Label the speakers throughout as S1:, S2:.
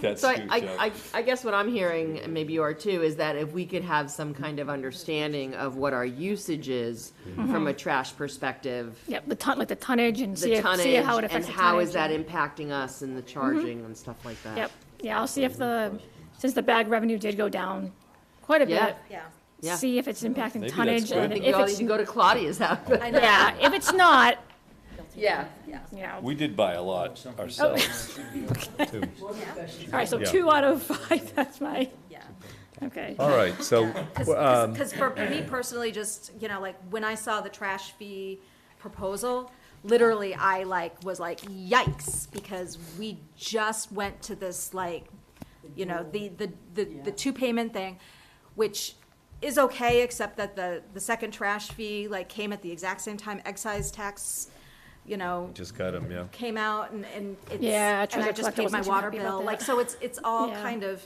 S1: That's
S2: So I,
S1: huge, yeah.
S2: I, I, I guess what I'm hearing, and maybe you are too, is that if we could have some kind of understanding of what our usage is
S3: Mm-hmm.
S2: from a trash perspective,
S3: Yeah, the ton, like the tonnage and see,
S2: the
S3: if- see
S2: tonnage,
S3: how
S2: and
S3: it affects the tonnage.
S2: how is that
S3: and-
S2: impacting us and the charging and stuff like that.
S3: Yep, yeah, I'll see if the, since the bag revenue did go down quite a
S2: Yeah.
S3: bit,
S4: Yeah,
S2: Yeah.
S3: see if it's impacting
S1: that's
S3: tonnage,
S1: good.
S3: and
S2: I think
S3: if
S2: we all need
S3: it's,
S2: to go to Claudia's house.
S4: I know.
S3: yeah, if it's not,
S2: Yeah.
S3: you know.
S1: We did buy a lot ourselves.
S3: All right, so two out of five, that's my,
S4: Yeah.
S3: okay.
S5: All right, so, um,
S4: Because for me personally, just, you know, like, when I saw the trash fee proposal, literally, I like, was like, yikes, because we just went to this, like, you know, the, the, the, the two payment thing, which is okay, except that the, the second trash fee, like, came at the exact same time excise tax, you know,
S5: just got him, yeah.
S4: came out and, and it's.
S3: Yeah,
S4: And I
S3: treasure
S4: just
S3: collector
S4: paid my
S3: wasn't too
S4: water
S3: happy about
S4: bill,
S3: that.
S4: like, so it's, it's all
S3: Yeah.
S4: kind of.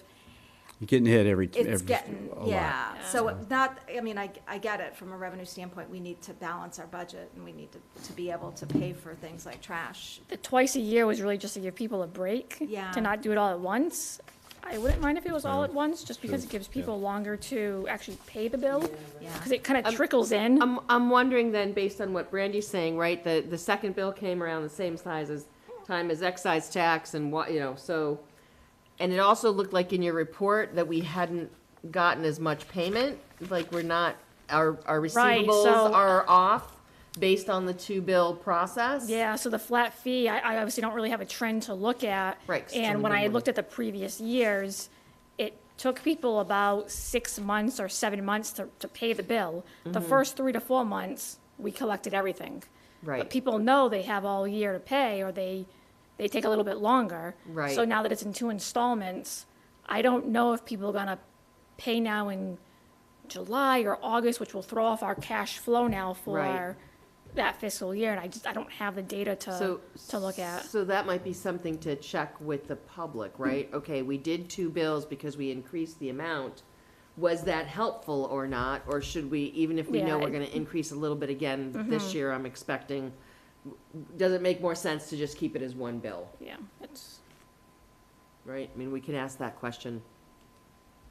S6: You're getting hit every, every,
S4: It's getting,
S6: a lot.
S4: yeah, so not, I mean, I, I get it, from a revenue standpoint, we need to balance our budget, and we need to, to be able to pay for things like trash.
S3: The twice a year was really just to give people a break.
S4: Yeah.
S3: To not do it all at once. I wouldn't mind if it was all at once, just because it gives people longer to actually pay the bill.
S4: Yeah.
S3: Because it
S2: Um,
S3: kind of trickles in.
S2: I'm, I'm wondering then, based on what Brandy's saying, right, the, the second bill came around the same size as, time as excise tax and what, you know, so, and it also looked like in your report that we hadn't gotten as much payment, like we're not, our, our
S3: Right,
S2: receivables
S3: so-
S2: are off based on the two bill process.
S3: Yeah, so the flat fee, I, I obviously don't really have a trend to look at.
S2: Right, 'cause it's
S3: And when
S2: only
S3: I
S2: been
S3: looked at the previous years, it took people about six months or seven months to, to pay the bill. The
S2: Mm-hmm.
S3: first three to four months, we collected everything.
S2: Right.
S3: But people know they have all year to pay, or they, they take a little bit longer.
S2: Right.
S3: So now that it's in two installments, I don't know if people are gonna pay now in July or August, which will throw off our cash flow now for that fiscal year, and I just, I don't have the data to,
S2: So.
S3: uh, to look at.
S2: So that might be something to check with the public, right?
S3: Mm.
S2: Okay, we did two bills because we increased the amount. Was that helpful or not? Or should we, even if we know
S3: Yeah, Mm-hmm.
S2: we're gonna increase a little bit again this year, I'm expecting, does it make more sense to just keep it as one bill,
S3: Yeah, it's,
S2: right? I mean, we can ask that question.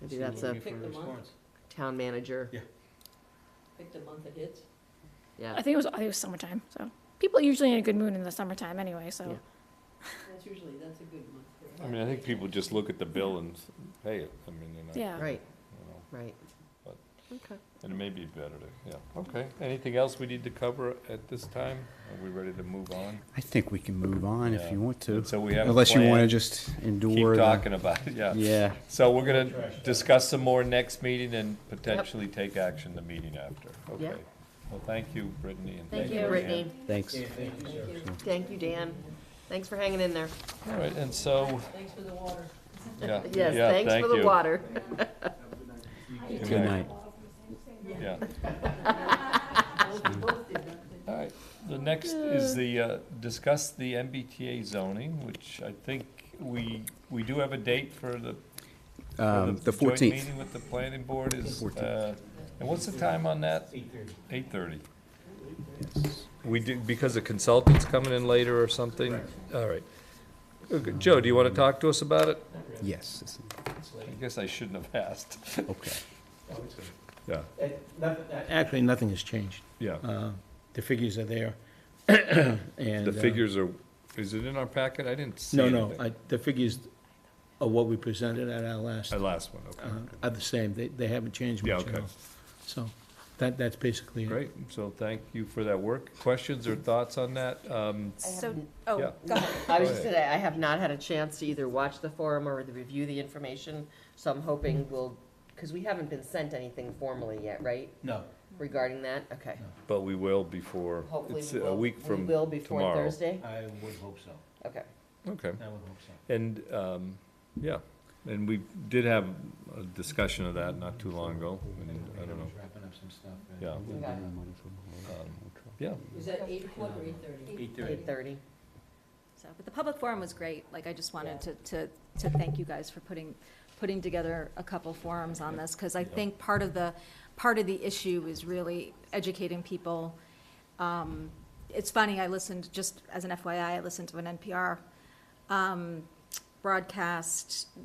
S2: Maybe that's a
S7: Pick the month,
S2: town manager.
S7: Yeah.
S8: pick the month it hits.
S3: I
S2: Yeah,
S3: think it was, I think it was summertime, so. People are usually in a good mood in the summertime anyway, so.
S8: That's usually, that's a good month. for it.
S1: I mean, I think people just look at the bill and s- pay it. I mean, you know.
S3: Yeah.
S2: right,
S1: you know,
S2: right.
S1: But-
S2: Okay.
S1: And it may be better to, yeah, okay. Anything else we need to cover at this time? Are we ready to move on?
S6: I think we can move on if
S1: Yeah.
S6: you want to.
S1: So we have a
S6: Unless you want to
S1: plan.
S6: just endure.
S1: Keep
S6: the-
S1: talking about it, yeah.
S6: Yeah.
S1: So we're gonna discuss some more next meeting and potentially take action the meeting after,
S2: Yeah.
S1: okay? Well, thank you, Brittany, and
S2: Thank
S1: thank you,
S2: you,
S1: Ann.
S2: Brittany.
S6: Thanks.
S2: Thank you, Dan. Thanks for hanging in there.
S1: All right, and so,
S8: Thanks for the water.
S1: yeah,
S2: Yes,
S1: yeah,
S2: thanks
S1: thank
S2: for the
S1: you.
S2: water.
S1: Good
S6: Good
S1: night.
S6: night.
S1: Yeah.
S8: We both did that.
S1: All right, the next is the, uh, discuss the MBTA zoning, which I think we, we do have a date for the, for
S6: Um, The
S1: joint
S6: 14th.
S1: meeting with the planning board is,
S6: 14th.
S1: uh, and what's the time on that? Eight thirty. We do, because the consultant's coming in later or something? All right. Okay, Joe, do you want to talk to us about it?
S6: Yes,
S1: I guess I shouldn't have asked.
S6: okay.
S1: Yeah,
S7: Actually, nothing uh, has changed.
S1: yeah.
S7: Uh, The figures are there. and,
S1: The
S7: uh,
S1: figures are, is it in our packet? I didn't see
S7: No,
S1: anything.
S7: no, I- the figures are what we presented at our last,
S1: The last one,
S7: uh,
S1: okay.
S7: are the same. They, they haven't changed
S1: Yeah,
S7: much at
S1: okay.
S7: all. So that, that's basically it.
S1: Great, so thank you for that work. Questions or thoughts on that? Um,
S4: So,
S2: haven't-
S4: oh,
S1: Yeah.
S4: go ahead.
S2: I was just gonna, I have not had a chance to either watch the forum or to review the information, so I'm hoping we'll, because we haven't been sent anything formally yet, right,
S7: No.
S2: regarding that? Okay.
S1: But we will before,
S2: Hopefully
S1: it's
S2: we
S1: a
S2: will-
S1: week
S2: We
S1: from
S2: will before
S1: tomorrow.
S2: Thursday?
S7: I would hope so.
S2: Okay.
S1: Okay.
S7: I would hope so.
S1: And, um, yeah, and we did have a discussion of that not too long ago, and I don't know,
S7: Wrapping up some stuff.
S1: yeah,
S2: Okay.
S1: Uh, yeah.
S8: Was that eight o'clock or eight thirty?
S7: Eight
S2: Eight thirty.
S4: So, but the public forum was great, like, I just wanted to, to, to thank you guys for putting, putting together a couple forums on this, because I think part of the, part of the issue is really educating people. Um, It's funny, I listened, just as an FYI, I listened to an NPR um, broadcast